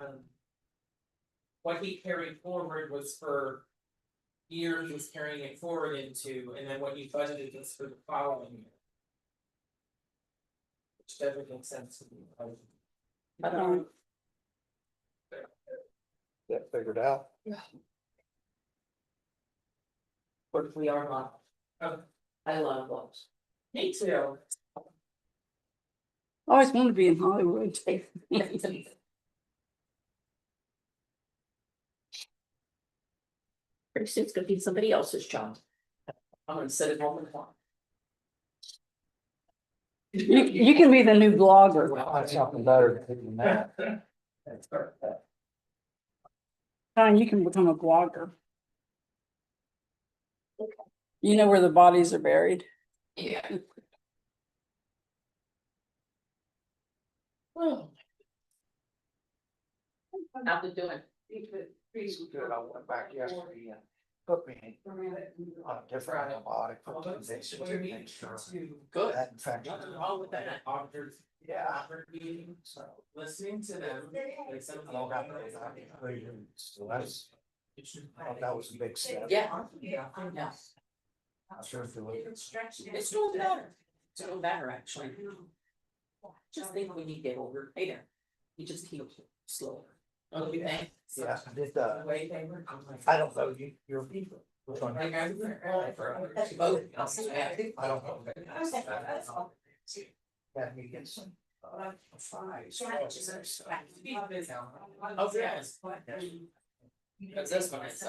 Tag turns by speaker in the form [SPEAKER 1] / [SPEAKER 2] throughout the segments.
[SPEAKER 1] Um, what he carried forward was for. Year he was carrying it forward into, and then what he budgeted was for the following year. Which doesn't make sense to me. I-
[SPEAKER 2] I don't,
[SPEAKER 3] that figured out.
[SPEAKER 2] work we are on.
[SPEAKER 1] Okay.
[SPEAKER 2] I love books.
[SPEAKER 1] Me too.
[SPEAKER 4] I Always wanted to be in Hollywood.
[SPEAKER 2] Pretty soon it's gonna be somebody else's job. I'm gonna sit at home and talk.
[SPEAKER 4] You, you can be the new blogger.
[SPEAKER 3] Find something better than that.
[SPEAKER 1] That's perfect.
[SPEAKER 4] Don, you can become a blogger.
[SPEAKER 2] Okay.
[SPEAKER 4] You know where the bodies are buried.
[SPEAKER 2] Yeah. Oh. How's it doing?
[SPEAKER 3] Good, I went back yesterday and put me on a different antibiotic for
[SPEAKER 1] Well,
[SPEAKER 3] two
[SPEAKER 1] that's
[SPEAKER 3] days
[SPEAKER 1] what
[SPEAKER 3] to
[SPEAKER 1] we
[SPEAKER 3] make
[SPEAKER 1] need
[SPEAKER 3] sure
[SPEAKER 1] to-
[SPEAKER 2] Good.
[SPEAKER 3] that infection.
[SPEAKER 1] Nothing wrong with that, auditors,
[SPEAKER 3] Yeah,
[SPEAKER 1] auditor meeting,
[SPEAKER 3] so.
[SPEAKER 1] listening to them, like some.
[SPEAKER 3] I don't have that, I mean, I mean, So that's, I thought that was a big step.
[SPEAKER 2] Yeah.
[SPEAKER 1] Yeah.
[SPEAKER 3] I'm sure if you look.
[SPEAKER 2] It's doing better. It's doing better, actually. Just think when you get older, hey there, you just heal slower. Don't you think?
[SPEAKER 3] Yeah, I did the,
[SPEAKER 1] The way they were, I'm like.
[SPEAKER 3] I don't know, you, you're. which one?
[SPEAKER 1] Like, I was there early for others.
[SPEAKER 2] Both.
[SPEAKER 3] I don't know.
[SPEAKER 1] But
[SPEAKER 3] Had me get some, uh, fries.
[SPEAKER 1] Oh, yes. But this one is uh,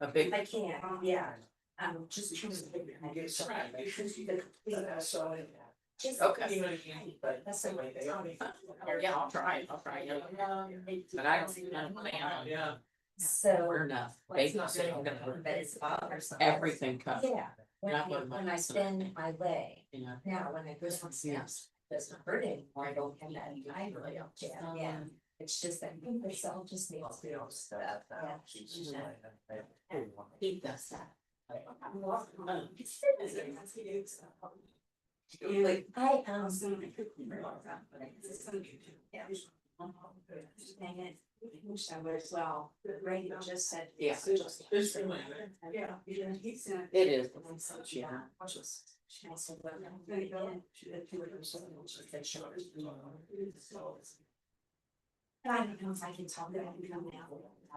[SPEAKER 1] a big.
[SPEAKER 5] I can't, yeah. Um, just choose. a bigger
[SPEAKER 3] I
[SPEAKER 5] one.
[SPEAKER 3] get some.
[SPEAKER 1] Right.
[SPEAKER 5] Just-
[SPEAKER 2] Okay.
[SPEAKER 1] You know what I mean? But that's the way they are.
[SPEAKER 2] Or, Yeah, I'll try it, I'll try it.
[SPEAKER 5] Um, it-
[SPEAKER 2] But I don't see none of that.
[SPEAKER 1] Yeah.
[SPEAKER 5] So.
[SPEAKER 2] We're enough.
[SPEAKER 5] like,
[SPEAKER 2] They
[SPEAKER 5] it's
[SPEAKER 2] can
[SPEAKER 5] not
[SPEAKER 2] say,
[SPEAKER 5] very
[SPEAKER 2] I'm gonna
[SPEAKER 5] often, But it's bothersome.
[SPEAKER 2] everything cut,
[SPEAKER 5] Yeah, when I,
[SPEAKER 2] Not one of my
[SPEAKER 5] when I
[SPEAKER 2] concern.
[SPEAKER 5] spend my way,
[SPEAKER 2] you know.
[SPEAKER 5] now when I go on snaps,
[SPEAKER 2] Yes.
[SPEAKER 5] it doesn't hurt anymore, I don't have that, I really don't, yeah, yeah.
[SPEAKER 2] Um,
[SPEAKER 5] It's just that I think myself just needs to know stuff, yeah.
[SPEAKER 2] He does that.
[SPEAKER 5] Like, I, um. Yeah. Dang it, I wish I would as well, Ray just said.
[SPEAKER 2] Yeah.
[SPEAKER 1] There's two women.
[SPEAKER 5] Yeah.
[SPEAKER 2] It is.
[SPEAKER 5] And I said,
[SPEAKER 2] Yeah.
[SPEAKER 5] yeah. She also went, "No, you don't." She did two or something, and she said, "Sure." And I don't know if I can talk about it now.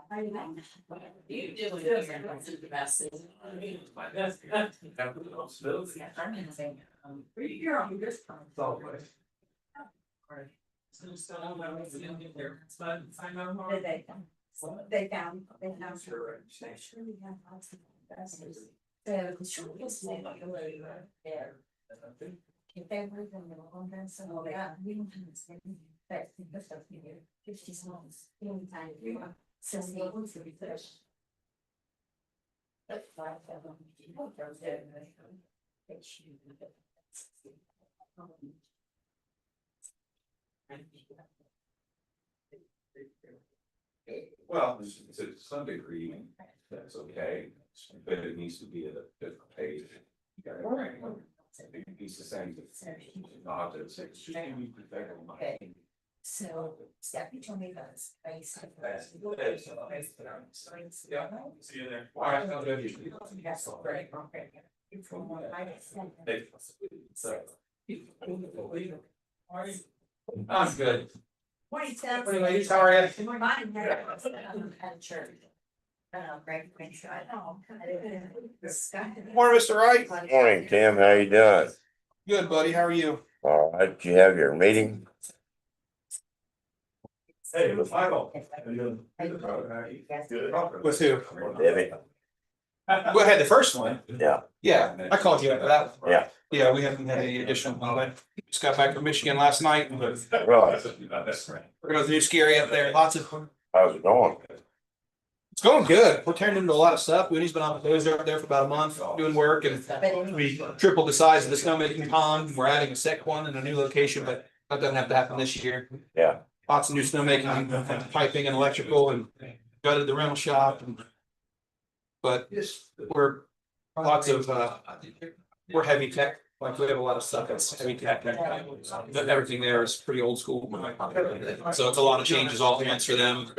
[SPEAKER 5] I don't know.
[SPEAKER 2] You do it here, that's the best. isn't it?
[SPEAKER 5] I'm gonna say, um,
[SPEAKER 1] You're on this time.
[SPEAKER 3] So-
[SPEAKER 1] So just don't know why it's in there, but I know how.
[SPEAKER 5] Did they? They found, they found.
[SPEAKER 1] Sure.
[SPEAKER 5] I'm Sure we have lots of investors. So, sure, it's like, uh, yeah. If they were the middle of them, so they got, we don't have this many, but the stuff we do, fifty songs, anytime you want. So they want to be fresh. But five of them, you know, they're there, and they come, they shoot, and they-
[SPEAKER 6] Well, to- to some degree, that's okay, but it needs to be at a different page. You gotta write one. It needs to say that not that it's extremely protected.
[SPEAKER 5] So Stephanie told me about this place.
[SPEAKER 6] That's- that's a place that I'm- Yeah, see you there.
[SPEAKER 5] That's all right. Okay. It's from what I said.
[SPEAKER 6] They- so. I'm good.
[SPEAKER 5] Twenty seven.
[SPEAKER 6] Anyway, sorry.
[SPEAKER 5] Mine, yeah, at church. Uh, Greg, when you I know.
[SPEAKER 3] Morning, Mr. Wright.
[SPEAKER 7] Morning, Tim. How you doing?
[SPEAKER 3] Good, buddy. How are you?
[SPEAKER 7] All right, you have your meeting?
[SPEAKER 6] Hey, the final.
[SPEAKER 3] With who?
[SPEAKER 7] Debbie?
[SPEAKER 3] We had the first one.
[SPEAKER 7] Yeah.
[SPEAKER 3] Yeah, I called you after that. one.
[SPEAKER 7] Yeah.
[SPEAKER 3] Yeah, we haven't had any additional, I just got back from Michigan last night. It
[SPEAKER 6] That's right.
[SPEAKER 3] was new scary up there, lots of,
[SPEAKER 7] How's it going?
[SPEAKER 3] it's going good. We're turning into a lot of stuff. Woody's been on the dozer up there for about a month, doing work and we tripled the size of the snowmaking pond. We're adding a second one in a new location, but that doesn't have to happen this year.
[SPEAKER 7] Yeah.
[SPEAKER 3] Lots of new snowmaking, piping and electrical and gutted the rental shop and. But we're lots of, uh, we're heavy tech, like we have a lot of stuff that's heavy tech. Everything there is pretty old school. So it's a lot of changes all at once for them.